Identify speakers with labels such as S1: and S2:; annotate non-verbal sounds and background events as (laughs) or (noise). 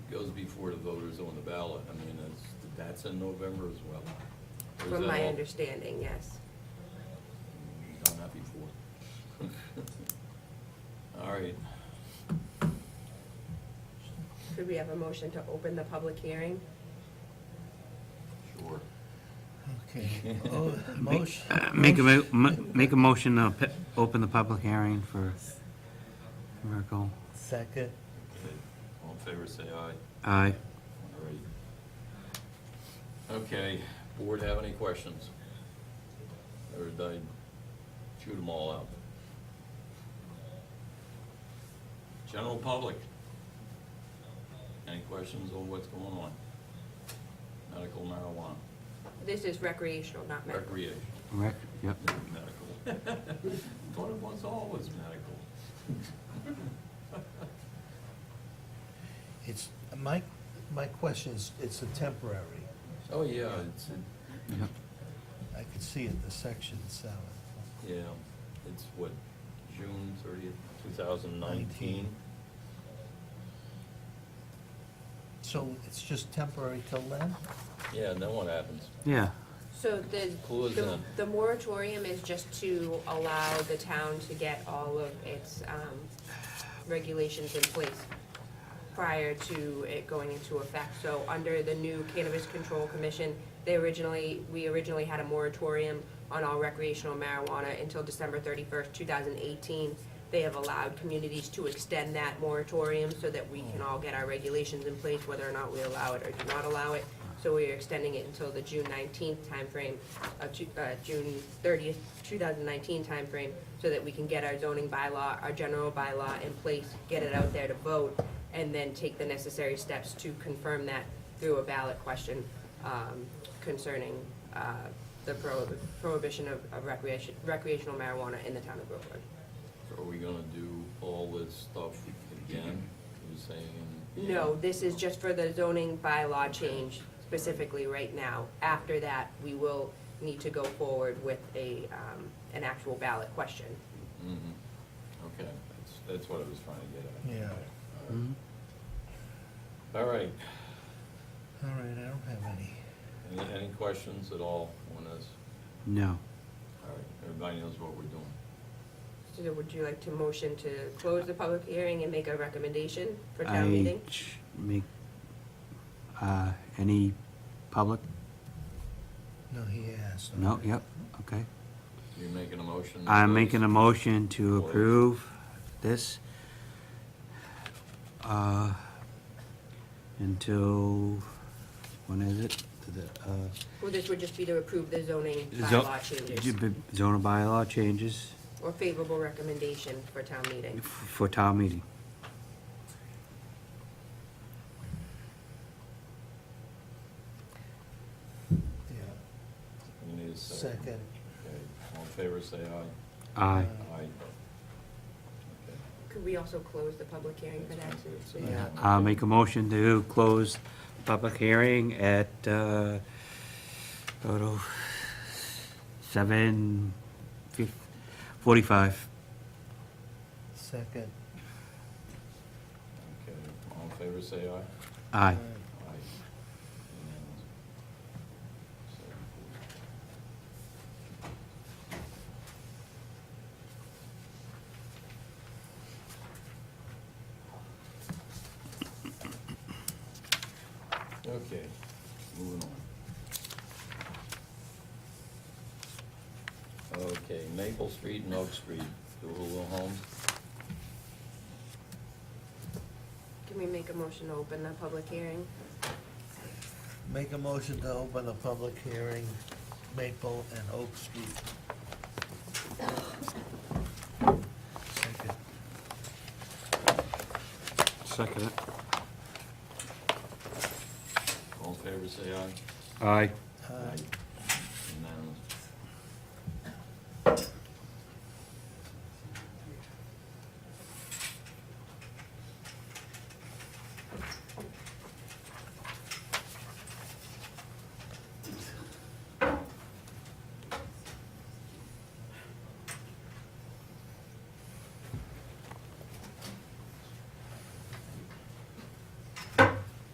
S1: goes before the voters on the ballot, I mean, that's, that's in November as well. Or is that
S2: from my
S1: all-
S2: understanding, yes.
S1: Done that before. (laughs) All right,
S2: Could we have a motion to open the public hearing?
S1: sure.
S3: Okay. Oh, Motion.
S4: Uh, Make a, mo- mo- make a motion to pe- open the public hearing for Miracle.
S3: Second.
S1: Okay. All in favor, say aye.
S4: Aye.
S1: All right. Okay, board have any questions? Or did I shoot them all out? General public? Any questions on what's going on? Medical marijuana,
S2: This is recreational, not medical.
S1: recreation,
S4: Rec, yep.
S1: (laughs) medical. Thought it was always medical.
S3: It's, my, my question is, it's a temporary.
S1: Oh, yeah, it's, a-
S4: yep.
S3: I could see it in the section seven.
S1: Yeah, it's what, June thirtieth, two thousand nineteen?
S3: So it's just temporary till then?
S1: Yeah, and then what happens?
S4: Yeah,
S2: So the,
S1: Who is
S2: the,
S1: that?
S2: the moratorium is just to allow the town to get all of its, um, regulations in place prior to it going into effect. So under the new Cannabis Control Commission, they originally, we originally had a moratorium on all recreational marijuana until December thirty-first, two thousand eighteen. They have allowed communities to extend that moratorium so that we can all get our regulations in place, whether or not we allow it or do not allow it. So we are extending it until the June nineteenth timeframe, uh, ju- uh, June thirtieth, two thousand nineteen timeframe, so that we can get our zoning bylaw, our general bylaw in place, get it out there to vote, and then take the necessary steps to confirm that through a ballot question um, concerning uh, the prohib- prohibition of of recreation, recreational marijuana in the town of Groveland.
S1: Are we gonna do all this stuff again? You're saying? yeah.
S2: No, this is just for the zoning bylaw change specifically right now. After that, we will need to go forward with a, um, an actual ballot question.
S1: Mhm. Okay, that's, that's what I was trying to get at.
S3: Yeah.
S1: All right,
S3: All right, I don't have any.
S1: any, any questions at all on this?
S4: no.
S1: All right, everybody knows what we're doing.
S2: So would you like to motion to close the public hearing and make a recommendation for
S4: I
S2: town meeting?
S4: ch- Make, uh, any public?
S3: No, he asked.
S4: No, yep, okay.
S1: You're making a motion?
S4: I'm making a motion to
S1: Close.
S4: approve this uh, until, when is it? The, uh,
S2: Well, this would just be to approve the zoning
S4: zo-
S2: bylaw changes
S4: Zoning bylaw changes
S2: or favorable recommendation for town meeting.
S4: f- for town meeting.
S3: Yeah,
S1: You need a second.
S3: second.
S1: Okay, all in favor, say aye.
S4: Aye.
S1: Aye. Okay.
S2: Could we also close the public hearing for that?
S1: That's
S2: too?
S1: right.
S3: Yeah.
S4: I'll make a motion to close public hearing at, uh, go to seven fif- forty-five.
S3: Second.
S1: Okay, all in favor, say aye.
S4: Aye.
S1: Aye. Unanimous. So approved. Okay, moving on. Okay, Maple Street and Oak Street, the Hulu Homes.
S2: Can we make a motion to open the public hearing?
S3: Make a motion to open a public hearing, Maple and Oak Street. Second.
S4: Second it.
S1: All in favor, say aye.
S4: Aye.
S3: Uh,